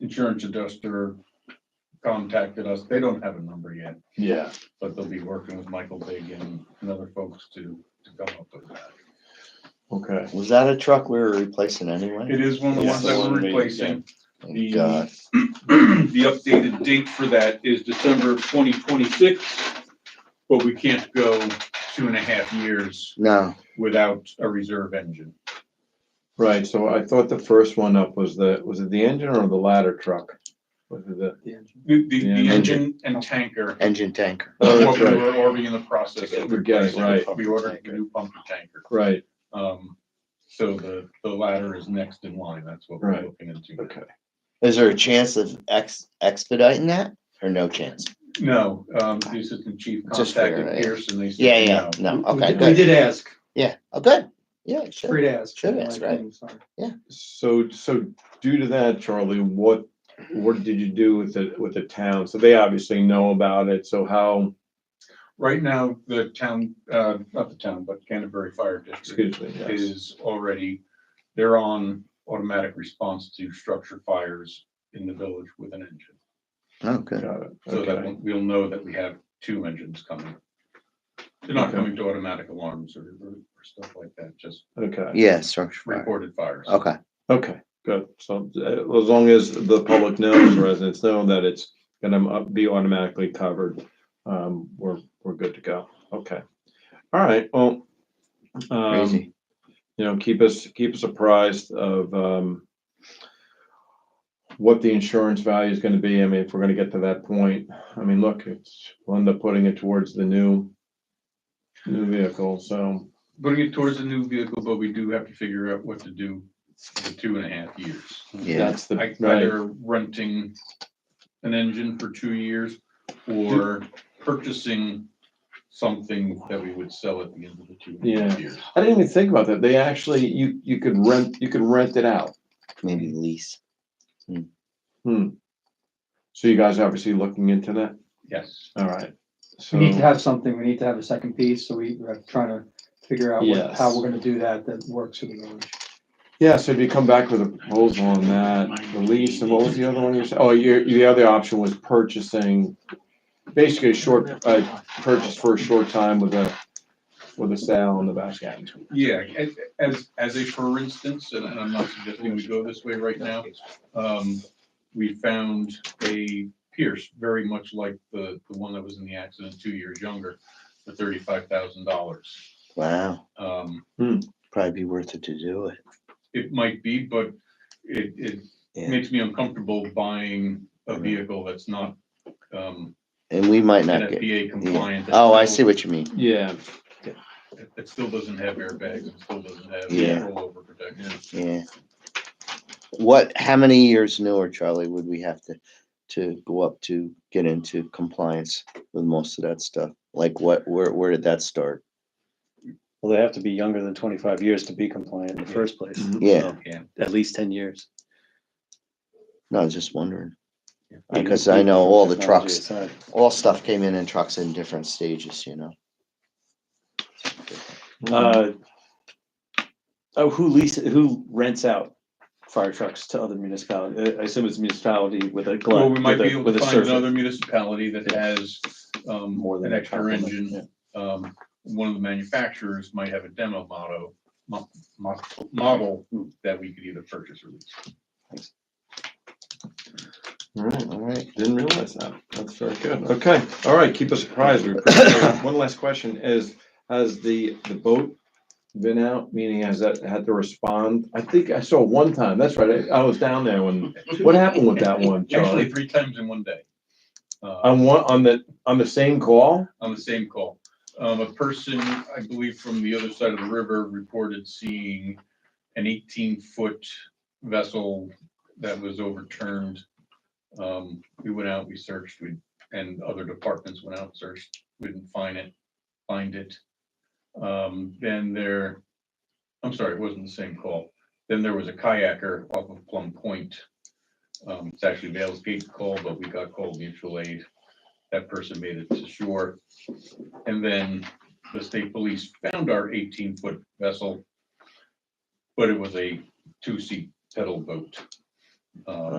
insurance adjuster contacted us. They don't have a number yet, Yeah, but they'll be working with Michael Big and and other folks to, to come up with that. okay. Was that a truck we were replacing anyway? It is one of the Yeah, ones so that we're one made, yeah. replacing. Oh, the- God. The updated date for that is December of twenty twenty-six, but we can't go two and a half years No, without a reserve engine. Right, so I thought the first one up was the, was it the engine or the ladder truck? Was it the, The, the, the Yeah. engine and tanker engine tanker. Oh, are that's what we right. were already in the process of. We're getting, replacing. right. We ordered a new pump and tanker. right, Um, so the, the ladder is next in line. That's what we're Right. looking into. okay. Is there a chance of ex- expediting that or no chance? No, um, the assistant chief Just figure contacted it out. Pierce and they said. Yeah, yeah, no, We- we okay, did- We good. did ask, Yeah, oh, good. Yeah, sure. free to ask. Should ask, right? So, so due to that, Charlie, what, what did you do with the, with the town? So they obviously know about it, so how, Right now, the town, uh, not the town, but Canterbury Fire District excuse me, yes, is already, they're on automatic response to structure fires in the village with an engine. Oh, good. got it, So that okay, we'll- we'll know that we have two engines coming. They're not Okay. coming to automatic alarms or, or or stuff like that, just okay, Yeah, structure. fire. reported fires. Okay, okay, good. So uh, as long as the public knows, residents know that it's gonna uh, be automatically covered, um, we're, we're good to go, okay. All right, well. um, crazy. you know, keep us, keep us apprised of, um, what the insurance value is gonna be. I mean, if we're gonna get to that point, I mean, look, it's, we'll end up putting it towards the new, new vehicle, so, Putting it towards the new vehicle, but we do have to figure out what to do for the two and a half years. Yeah, that's the, I- right, Either renting an engine for two years or purchasing something that we would sell at the end of the two and a half years. I didn't even think about that. They actually, you, you could rent, you could rent it out. maybe lease. So you guys obviously looking into that? Yes. All right. We need to So, have something, we need to have a second piece, so we are trying to figure out what- how Yes. we're gonna do that, that works for the village. yeah, so if you come back with a proposal on that, the lease, and what was the other one you said? Oh, your, the other option was purchasing basically a short, uh, purchase for a short time with a, with a sale on the back end. Yeah, as- as, as a for instance, and I'm not suggesting we go this way right now, um, we found a Pierce very much like the, the one that was in the accident, two years younger, for thirty-five thousand dollars. Wow, Um, probably be worth it to do it. it might be, but it, it Yeah, makes me uncomfortable buying a Mhm. vehicle that's not, um, and we might not get, NFPA compliant. that oh, I see still- what you mean. Yeah. It it still doesn't have airbags, it still doesn't have Yeah. rollover protection. Yeah. What, how many years newer, Charlie, would we have to, to go up to get into compliance with most of that stuff? Like what, where, where did that start? Well, they have to be younger than twenty-five years to be compliant in the first place, Mhm. Uh, Yeah, Yeah. at least ten years. no, I was just wondering. Yeah. Because I know all the Technology trucks- aside. All stuff came in in trucks in different stages, you know? Uh, Oh, who leases, who rents out fire trucks to other municipalities? I assume it's municipality with a. Well, glide- we might with a- be able with to a find surface. another municipality that has, um, More than an a extra compliment, engine. Um, one of the manufacturers might have a demo motto, mo- mo- model Hmm. that we could either purchase or lease. All right. All right. Didn't realize that. That's very good. Okay, all right, keep us apprised. We appreciate it. One last question is, has the, the boat been out? Meaning has that had to respond? I think I saw one time. That's right. I I was down there when, what happened with that one, Actually, Charlie? three times in one day. Uh, On one, on the, on the same call? on the same call. Um, a person, I believe from the other side of the river reported seeing an eighteen foot vessel that was overturned. Um, we went out, we searched, we, and other departments went out, and searched, we didn't find it, find it. Um, then there, I'm sorry, it wasn't the same call. Then there was a kayaker off of Plum Point. Um, it's actually Vale's Gate call, but we got called mutual aid. That person made it to shore. And then the state police found our eighteen foot vessel. But it was a two seat pedal boat. Uh,